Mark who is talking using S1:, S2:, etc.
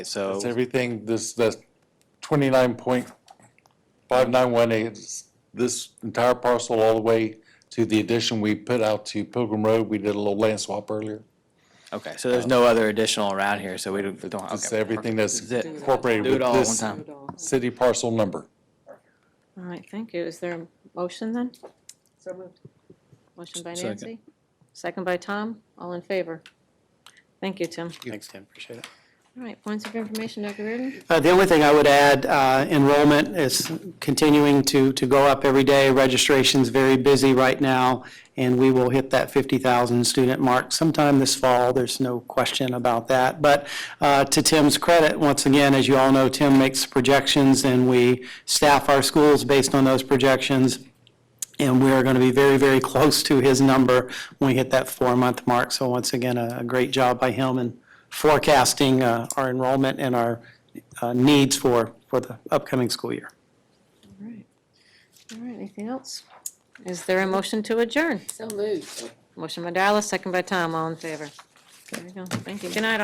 S1: So
S2: It's everything, this, that's twenty-nine point five nine one eight, this entire parcel all the way to the addition we put out to Pilgrim Road, we did a little land swap earlier.
S1: okay, so there's no other additional around here, so we don't. don't- okay,
S2: It's everything that's
S1: This is it.
S2: incorporated
S1: Do it
S2: with
S1: all at
S2: this
S1: one time.
S3: All
S2: city parcel number.
S3: right, thank you. Is there a motion then?
S4: So moved.
S3: Motion by
S1: Second.
S3: Nancy, second by Tom, all in favor. Thank you, Tim.
S5: Thanks, Tim, appreciate it.
S3: All right, points of information, Dr. Reardon?
S5: Uh, The only thing I would add, uh, enrollment is continuing to, to go up every day. Registration's very busy right now, and we will hit that 50,000 student mark sometime this fall. There's no question about that. But uh, to Tim's credit, once again, as you all know, Tim makes projections, and we staff our schools based on those projections. And we are going to be very, very close to his number when we hit that four-month mark. So once again, a a great job by him in forecasting uh, our enrollment and our uh, needs for, for the upcoming school year.
S3: All right, All right. anything else? Is there a motion to adjourn?
S4: So moved.
S3: Motion by Dallas, second by Tom, all in favor. There you go, thank you. Good night, all.